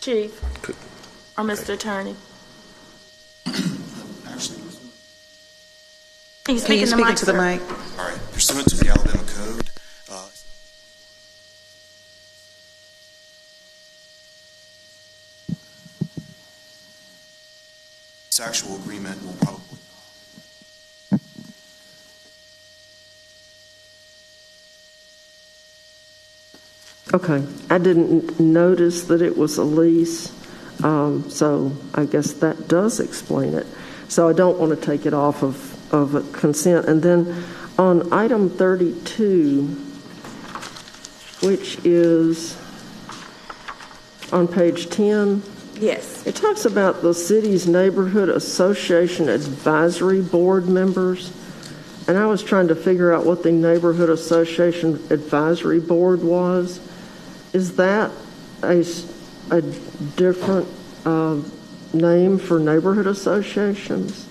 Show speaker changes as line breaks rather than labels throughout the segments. Chief, or Mr. Attorney.
Actually,
Can you
Can
speak
you
in the
speak
mic,
into the
sir?
mic?
all right, pursuant to the Alabama Code, uh, sexual agreement will probably
Okay, I didn't notice that it was a lease, um, so I guess that does explain it. So I don't want to take it off of, of a consent. And then on item 32, which is on page 10,
Yes.
it talks about the city's neighborhood association advisory board members. And I was trying to figure out what the neighborhood association advisory board was. Is that a, s- a different uh, name for neighborhood associations?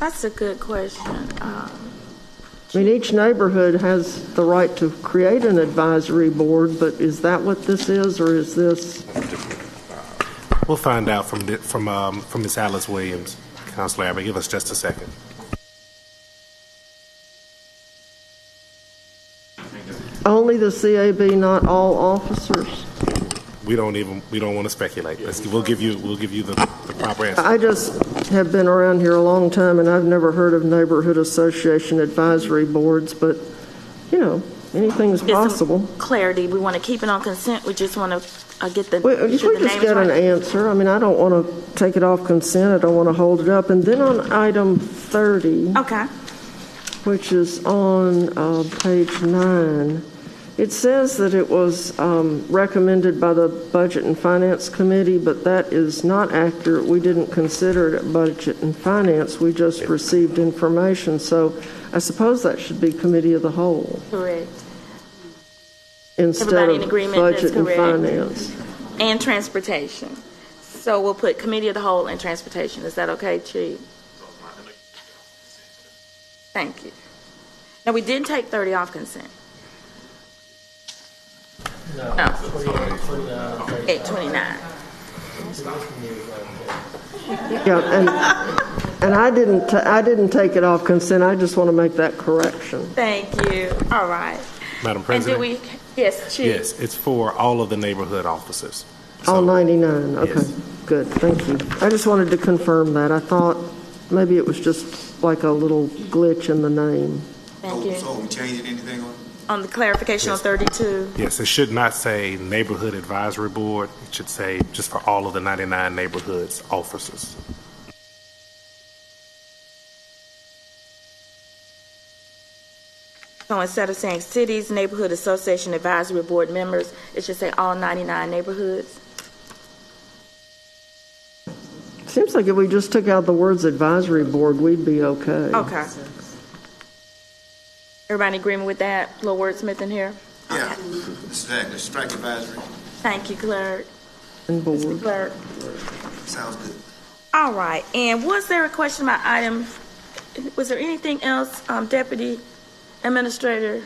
That's a good question. Um,
I mean, each neighborhood has the right to create an advisory board, but is that what this is, or is this?
We'll find out from, the- from, um, from Ms. Alice Williams, Counselor Abbott. Give us just a second.
Only the CAB, not all officers?
We don't even, we don't want to speculate. Let's, we'll give you, we'll give you the, the proper answer.
I just have been around here a long time, and I've never heard of neighborhood association advisory boards, but, you know, anything's
there's some
possible.
Clarity, we want to keep it on consent, we just want to get the,
We,
get
we
the
just
names
got an
right.
answer. I mean, I don't want to take it off consent, I don't want to hold it up. And then on item 30,
Okay,
which is on uh, page nine, it says that it was um, recommended by the Budget and Finance Committee, but that is not accurate. We didn't consider it at Budget and Finance, we just received information. So I suppose that should be Committee of the Whole
correct.
instead
Everybody in
of
agreement, that's
Budget and
correct.
Finance.
And transportation. So we'll put committee of the whole and transportation. Is that okay, Chief? Thank you. Now, we did take 30 off consent. No. 829.
Yeah, and, and I didn't, ta- I didn't take it off consent, I just want to make that correction.
Thank you. All right.
Madam
And did
President?
we, yes, Chief?
Yes, it's for all of the neighborhood officers. So-
All 99, okay,
Yes.
good, thank you. I just wanted to confirm that. I thought maybe it was just like a little glitch in the name.
Thank
So-
you.
So, we changing anything on?
On the clarification on 32,
Yes, it should not say Neighborhood Advisory Board. It should say just for all of the 99 neighborhoods officers.
so instead of saying cities, neighborhood association advisory board members, it should say all 99 neighborhoods?
Seems like if we just took out the words advisory board, we'd be okay.
Okay. Everybody in agreement with that? Little wordsmith in here?
Yeah, let's strike, let's strike advisory,
Thank you, clerk.
And board.
Clerk.
sounds good.
Mm-hmm. All right, and was there a question about item, was there anything else, um, Deputy Administrator,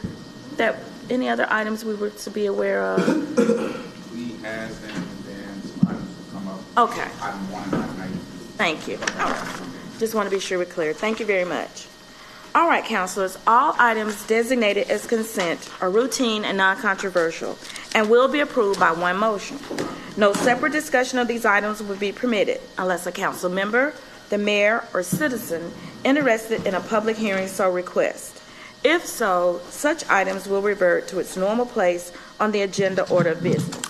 that, any other items we were to be aware of?
We had them, and then some items will come up.
Okay.
Item one and item eight.
Thank you. All right. Just want to be sure we're clear. Thank you very much. All right, counselors, all items designated as consent are routine and non-controversial and will be approved by one motion. No separate discussion of these items will be permitted unless a council member, the mayor, or citizen interested in a public hearing so requests. If so, such items will revert to its normal place on the agenda order of business.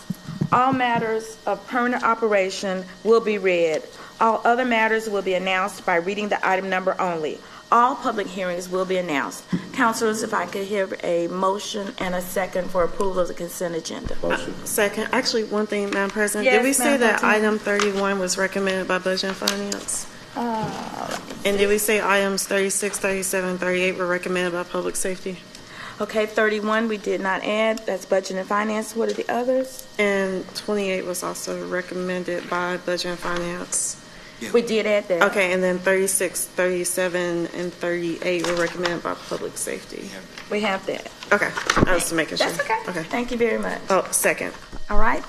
All matters of permanent operation will be read. All other matters will be announced by reading the item number only. All public hearings will be announced. Counselors, if I could hear a motion and a second for approval of the consent agenda.
Second, actually, one thing, Madam President,
Yes,
did we say
Madam
that
President.
item thirty-one was recommended by Budget and Finance?
Uh,
And did we say items 36, 37, 38 were recommended by Public Safety?
Okay, 31, we did not add. That's budget and finance. What are the others?
And twenty-eight was also recommended by Budget and Finance.
We did add that.
Okay, and then 36, 37, and thirty-eight were recommended by Public Safety.
We have that.
Okay, I was making sure.
That's okay.
Okay.
Thank you very much.
Oh, second.
All right,